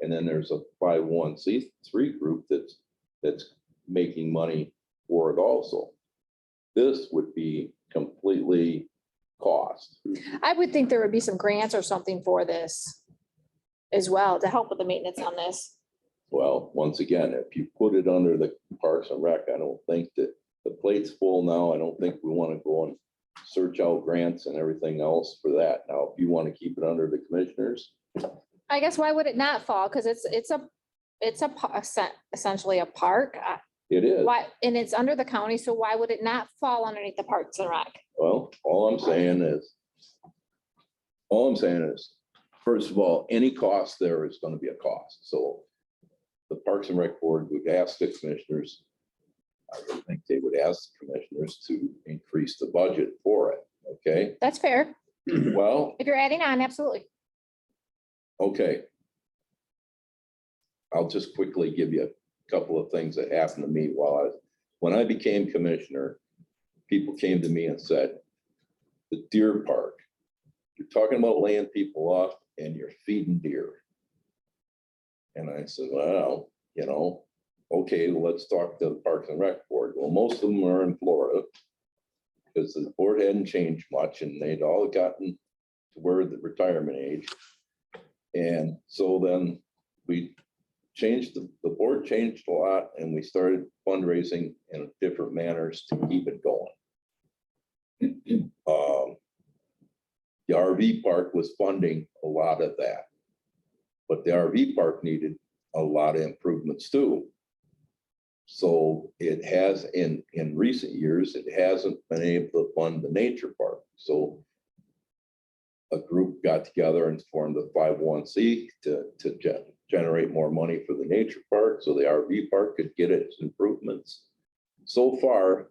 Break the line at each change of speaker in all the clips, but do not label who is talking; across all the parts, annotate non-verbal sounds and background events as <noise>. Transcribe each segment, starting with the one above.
And then there's a five one C three group that's, that's making money for it also. This would be completely cost.
I would think there would be some grants or something for this as well to help with the maintenance on this.
Well, once again, if you put it under the Parks and Rec, I don't think that the plate's full now. I don't think we want to go and search out grants and everything else for that. Now, if you want to keep it under the commissioners,
I guess why would it not fall? Because it's, it's a, it's a pa- essen- essentially a park. I-
it is.
Why, and it's under the county, so why would it not fall underneath the Parks and Rec?
Well, all I'm saying is, all I'm saying is, first of all, any cost there is gonna be a cost, so the Parks and Rec Board would ask the commissioners, I would think they would ask the commissioners to increase the budget for it,
<clears throat>
okay?
That's fair.
Well,
If you're adding on, absolutely.
Okay. I'll just quickly give you a couple of things that happened to me while I, was when I became commissioner, people came to me and said, the deer park, you're talking about laying people off and you're feeding deer. And I said, well, you know, okay, well, let's talk to the Parks and Rec Board. Well, most of them are in Florida because the board hadn't changed much and they'd all gotten to where the retirement age. And so then we changed, the the board changed a lot and we started fundraising in different manners to keep it going. Um, The RV park was funding a lot of that. But the RV park needed a lot of improvements too. So it has, in, in recent years, it hasn't been able to fund the nature park. So a group got together and formed the five oh one C to, to gen- generate more money for the nature park, so the RV park could get its improvements. So far,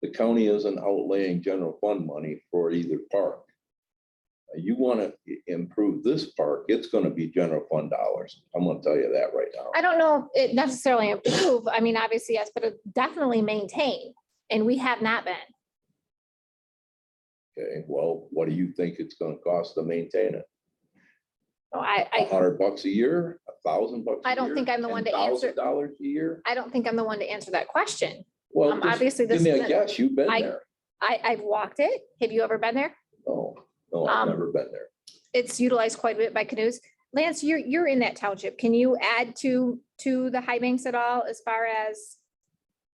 the county isn't outlaying general fund money for either park. Uh, You want to improve this park, it's going to be general fund dollars. I'm going to tell you that right now.
I don't know if it necessarily improve. I mean, obviously, yes, but it definitely maintain. And we have not been.
Okay, well, what do you think it's going to cost to maintain it?
So I,
A
I,
hundred bucks a year, a thousand bucks? a
I don't
year,
think I'm the one to answer-
$10,000 Dollars a year?
I don't think I'm the one to answer that question.
Well,
Um,
just
obviously,
give
this
me a
isn't,
guess, you've been
I-
there.
I, I've walked it. Have you ever been there?
No, no, I've
Um,
never been there.
it's utilized quite a bit by canoes. Lance, you're, you're in that township. Can you add to, to the high banks at all as far as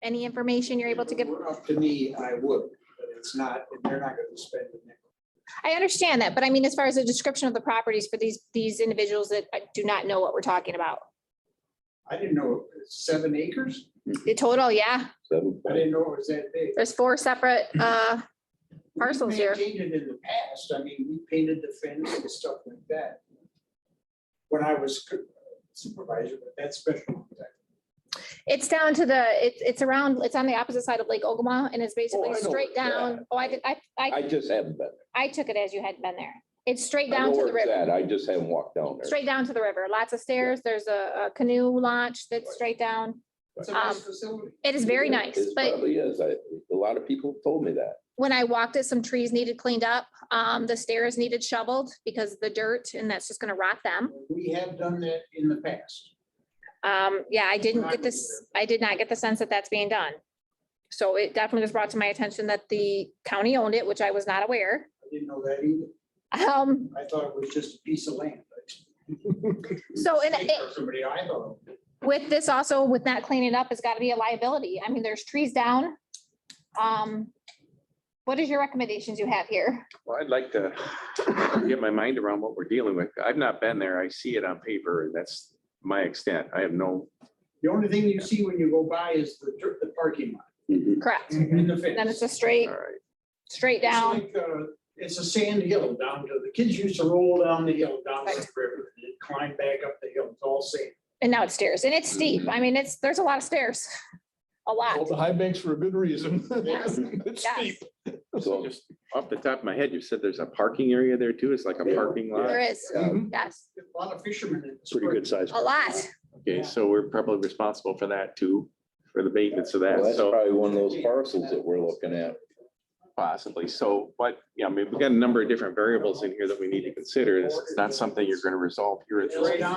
any information you're able to
If
give?
it were Up to me, I would, but it's not, and they're not gonna spend a nickel.
I understand that, but I mean, as far as a description of the properties for these, these individuals that uh, do not know what we're talking about.
I didn't know, it's seven acres?
The total, yeah,
Seven
I
point-
didn't know it was that big.
there's four separate, uh,
We
Parcels here.
Maintained it in the past, I mean, we painted the fence and stuff like that. When I was co- supervisor, but that's special.
it's down to the, it's, it's around, it's on the opposite side of Lake Ogama and it's
I
basically
know
straight
where it's at.
down. Oh, I, did- I, I,
I just haven't been.
I took it as you hadn't been there. It's straight
there. I know
down to
where
the
it's at,
river.
I just haven't walked down there.
straight down to the river. Lots of stairs. There's a a canoe launch that's straight down.
It's a nice
Um,
facility.
It is very
It-
nice,
it
but
Probably is. I, a lot of people told me that.
when I walked it, some trees needed cleaned up. Um, the stairs needed shoveled because of the dirt and that's just gonna rot them.
We have done that in the past.
Um, yeah, I didn't get this, I did not get the sense that that's being done. So it definitely was brought to my attention that the county owned it, which I was not aware.
I didn't know that either.
Um,
I thought it was just a piece of land.
So, and
State or
it-
Somebody I thought.
with this also, with not cleaning up, it's gotta be a liability. I mean, there's trees down. Um, what is your recommendations you have here?
Well, I'd like to get my mind around what we're dealing with. I've not been there. I see it on paper and that's my extent. I have no.
The only thing you see when you go by is the, dirt- the parking lot
Mm-hmm.
Correct.
and the fence.
Then it's a straight,
All right.
straight
It's
down.
like, uh, It's a sand hill down to, the kids used to roll down the hill, down the
Right.
river, and climb back up the hill, it's all sand.
And now it's stairs and it's steep. I mean, it's, there's a lot of stairs. A
Well,
lot.
the high banks for a good reason.
Yes,
Oh, It's
yes.
steep.
So
So
just off the top of my head, you said there's a parking area there too. It's like a parking
There
lot.
is,
Mhm.
yes,
A lot of fishermen in the
Pretty
spring.
good size.
a lot.
Okay, so we're probably responsible for that too, for the maintenance of
well,
that.
that's
So
probably one of those parcels that we're looking at.
possibly. So, but yeah, I mean, we've got a number of different variables in here that we need to consider. It's it's not something you're going to resolve here. at
It's
this
right on